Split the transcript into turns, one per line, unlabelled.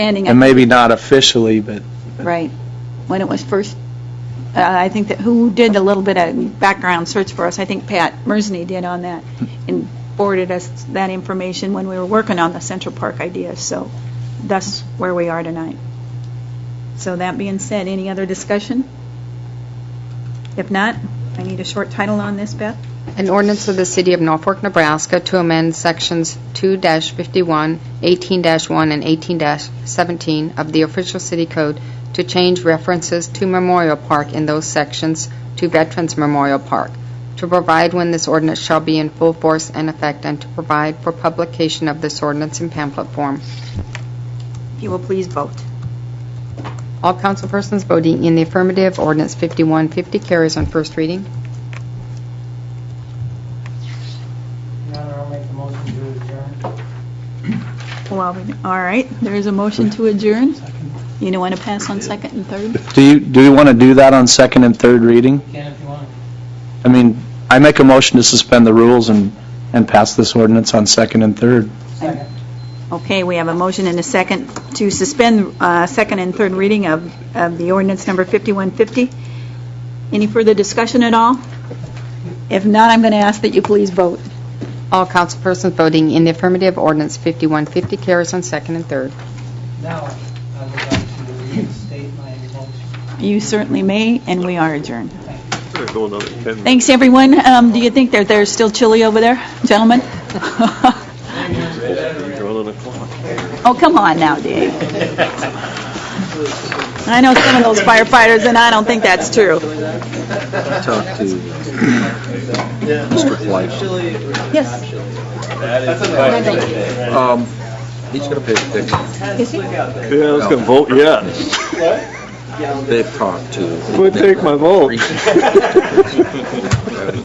standing up.
And maybe not officially, but
Right. When it was first, uh, I think that, who did a little bit of background search for us? I think Pat Mersney did on that and forwarded us that information when we were working on the Central Park idea. So that's where we are tonight. So that being said, any other discussion? If not, I need a short title on this, Beth.
An ordinance of the City of Norfolk, Nebraska to amend Sections 2-51, 18-1, and 18-17 of the official city code to change references to Memorial Park in those sections to Veterans Memorial Park, to provide when this ordinance shall be in full force and effect, and to provide for publication of this ordinance in pamphlet form.
If you will please vote.
All councilpersons voting in the affirmative, ordinance 5150 carries on first reading.
Your Honor, I'll make the motion to adjourn.
Well, all right, there is a motion to adjourn. You don't want to pass on second and third?
do you, do you want to do that on second and third reading?
You can if you want.
I mean, I make a motion to suspend the rules and, and pass this ordinance on second and third.
Second.
Okay, we have a motion and a second to suspend uh, second and third reading of of the ordinance number 5150. Any further discussion at all? If not, I'm going to ask that you please vote.
All councilpersons voting in the affirmative, ordinance 5150 carries on second and third.
Now, I would like to reinstate my motion.
You certainly may, and we are adjourned.
We're gonna go another 10 minutes.
Thanks, everyone. Um, Do you think that there's still chili over there, gentlemen?
You're on the clock.
Oh, come on now, Dave. I know some of those firefighters, and I don't think that's true.
talked to Mr. Fleishman.
Yes.
Um, he's gonna pay the ticket.
Yeah, I was gonna vote yes.
They've talked to.
Would take my vote.
It's